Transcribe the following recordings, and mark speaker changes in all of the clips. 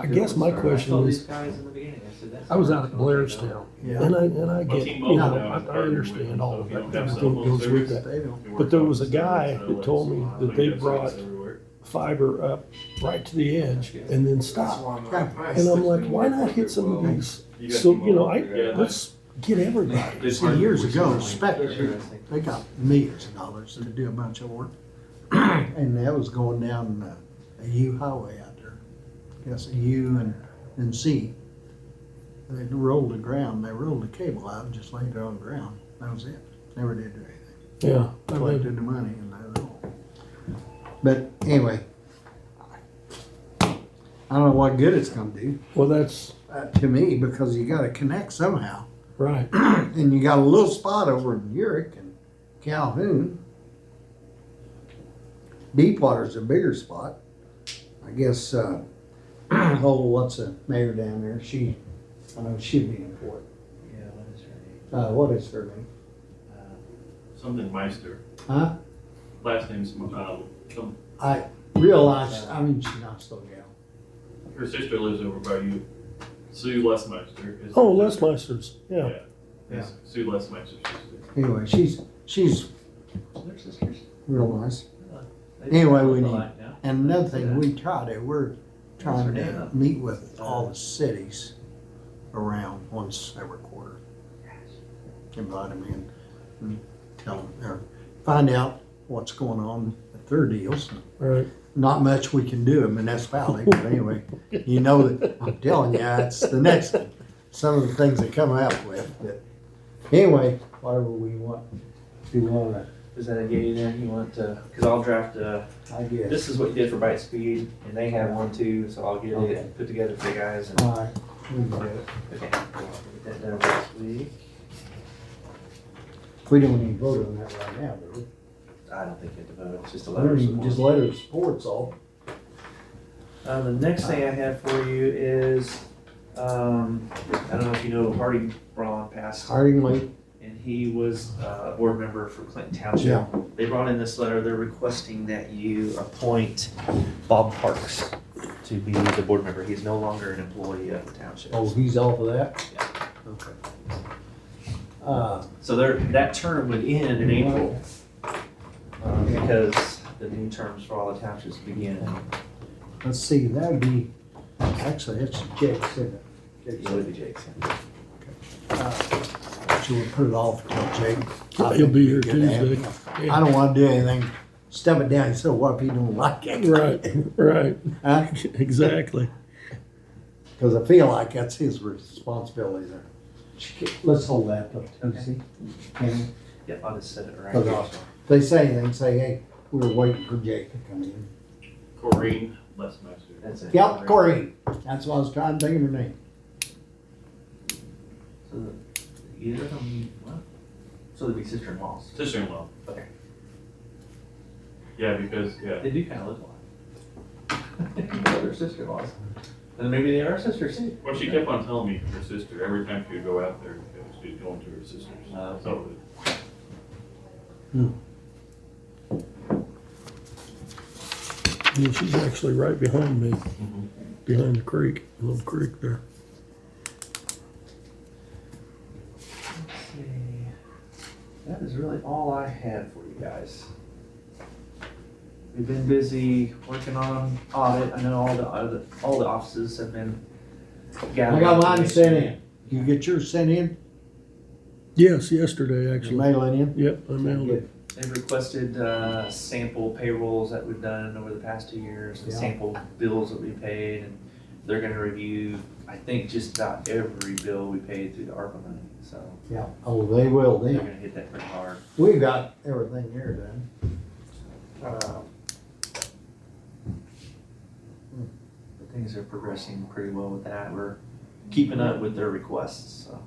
Speaker 1: I guess my question
Speaker 2: told
Speaker 1: is-
Speaker 2: these guys in the beginning, I said, that's
Speaker 1: I was
Speaker 2: not
Speaker 1: out at
Speaker 2: what I told you,
Speaker 1: Blairstown,
Speaker 3: Yeah.
Speaker 1: and I, and I get,
Speaker 4: Team
Speaker 1: you know,
Speaker 4: Mobile now is
Speaker 1: I- I
Speaker 4: partnered with them,
Speaker 1: understand all
Speaker 4: so
Speaker 1: of
Speaker 4: if you
Speaker 1: that,
Speaker 4: don't have
Speaker 1: everything
Speaker 4: cell phone
Speaker 1: goes with
Speaker 4: service,
Speaker 1: that.
Speaker 3: They don't.
Speaker 1: But there was a guy that told me that they brought Fiber up right to the edge and then stopped. And I'm like, why not hit some of these? So, you know, I, let's get everybody.
Speaker 4: It's
Speaker 3: See, years ago, Spectre,
Speaker 2: Interesting.
Speaker 3: they got millions of dollars to do a bunch of work. And that was going down uh, a U highway out there. Yes, a U and, and C. And They rolled the ground, they rolled the cable out and just laid it on the ground. That was it. Never did do anything.
Speaker 1: Yeah. I mean,
Speaker 3: collected the money and that was all. But anyway, I don't know what good it's gonna do
Speaker 1: Well, that's
Speaker 3: uh, to me because you gotta connect somehow.
Speaker 1: right.
Speaker 3: And you got a little spot over in Urick and Calhoun. Deepwater's a bigger spot. I guess, uh, oh, what's the mayor down there? She, I know she'd be in for it.
Speaker 2: Yeah, what is her
Speaker 3: Uh, what is her name?
Speaker 2: name?
Speaker 4: Something Meister,
Speaker 3: Huh?
Speaker 4: last name's, um, some-
Speaker 3: I realize, I mean, she's not still gal.
Speaker 4: her sister lives over by you, Sue Lesmeister. is her
Speaker 1: Oh, Les
Speaker 4: sister.
Speaker 1: Meisters, yeah.
Speaker 4: Yeah, it's Sue Lesmeister's sister.
Speaker 3: Anyway, she's, she's
Speaker 2: Uh, They're sisters.
Speaker 3: real nice.
Speaker 2: They just
Speaker 3: Anyway, we
Speaker 2: look
Speaker 3: need-
Speaker 2: alike now.
Speaker 3: And another thing we try to, we're trying to meet with all the cities around once every quarter. Invite them in and tell them, or find out what's going on with their deals.
Speaker 1: Right.
Speaker 3: Not much we can do in municipality, but anyway, you know that, I'm telling you, it's the next, thing. some of the things they come out with, but anyway, whatever we want, if you wanna,
Speaker 2: Is that a yay there? You want to, cause I'll draft, uh,
Speaker 3: I guess.
Speaker 2: this is what you did for Bite Speed and they have one too, so I'll get
Speaker 3: Okay.
Speaker 2: it put together for you guys and.
Speaker 3: All right, we can do it.
Speaker 2: Okay, I'll get that done next week.
Speaker 3: We don't even vote on that right now, do we?
Speaker 2: I don't think you have to vote, it's just a
Speaker 3: I
Speaker 2: letter.
Speaker 3: don't
Speaker 2: of
Speaker 3: even, just
Speaker 2: support.
Speaker 3: letter of support's all.
Speaker 2: Uh, the next thing I have for you is, um, I don't know if you know Hardy Braun passed,
Speaker 3: Harding Lake.
Speaker 2: and he was uh, a board member for Clinton Township.
Speaker 3: Yeah.
Speaker 2: They brought in this letter, they're requesting that you appoint Bob Parks to be the board member. He's no longer an employee of the township.
Speaker 3: Oh, he's off of that?
Speaker 2: Yeah.
Speaker 3: Okay. Uh,
Speaker 2: So there, that term would end
Speaker 3: Mm-hmm.
Speaker 2: in April. uh, Because the new terms for all the townships begin.
Speaker 3: let's see, that'd be, actually, that's Jake's, isn't it?
Speaker 2: It would be Jackson.
Speaker 3: Uh, So we'll put it off till Jake. I
Speaker 1: He'll
Speaker 3: think
Speaker 1: be here
Speaker 3: it'd good to have
Speaker 1: Tuesday.
Speaker 3: him. I don't wanna do anything, step it down, so what if he don't like it?
Speaker 1: Right, right,
Speaker 3: Huh?
Speaker 1: exactly.
Speaker 3: Cause I feel like that's his responsibility there. Let's hold that till Tuesday. Can we?
Speaker 2: Yep, I'll just set it right.
Speaker 3: Cause
Speaker 2: here.
Speaker 3: I'll- they say, they say, hey, we were waiting for Jake to come in.
Speaker 4: Corinne Lesmeister.
Speaker 2: That's it.
Speaker 3: Yep, Corey. That's what I was trying to think of her name.
Speaker 2: So the- Either of them, what? So they'd be sister-in-laws.
Speaker 4: Sister-in-law.
Speaker 2: Okay.
Speaker 4: Yeah, because, yeah,
Speaker 2: They do kind of look alike. They're sister-in-laws. And maybe they are sisters too.
Speaker 4: well, she kept on telling me her sister, every time she would go out there, she was going to her sister's.
Speaker 2: Oh, okay.
Speaker 4: So,
Speaker 1: Yeah, she's actually right behind me,
Speaker 4: mhm.
Speaker 1: behind the creek, little creek there.
Speaker 2: Let's see. That is really all I had for you guys. We've been busy working on audit. I know all the, all the- all the offices have been gathering.
Speaker 3: I got mine sent
Speaker 2: information.
Speaker 3: in. You get yours sent in?
Speaker 1: Yes, yesterday,
Speaker 3: Did you
Speaker 1: actually.
Speaker 3: mail it in?
Speaker 1: Yep, I mailed it.
Speaker 2: They've requested uh, sample payrolls that we've done over the past two years, and
Speaker 3: Yeah.
Speaker 2: sample bills that we paid, and they're gonna review, I think, just about every bill we paid through the ARPA money, so
Speaker 3: Yeah. Oh, they will
Speaker 2: they're
Speaker 3: then.
Speaker 2: gonna hit that pretty hard.
Speaker 3: We got everything here done. Uh,
Speaker 2: But things are progressing pretty well with that, we're keeping up with their requests, so.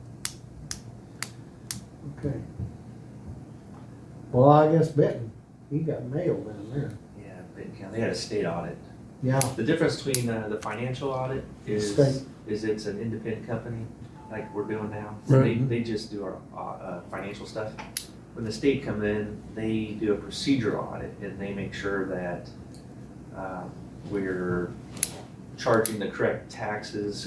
Speaker 3: Okay. Well, I guess Benton, he got nailed down there.
Speaker 2: Yeah, Benton County, they had a state audit.
Speaker 3: Yeah.
Speaker 2: The difference between uh, the financial audit is,
Speaker 3: State.
Speaker 2: is it's an independent company, like we're doing now. So They,
Speaker 1: Right.
Speaker 2: they just do our, uh, uh, financial stuff. When the state come in, they do a procedural audit and they make sure that, um, uh, we're charging the correct taxes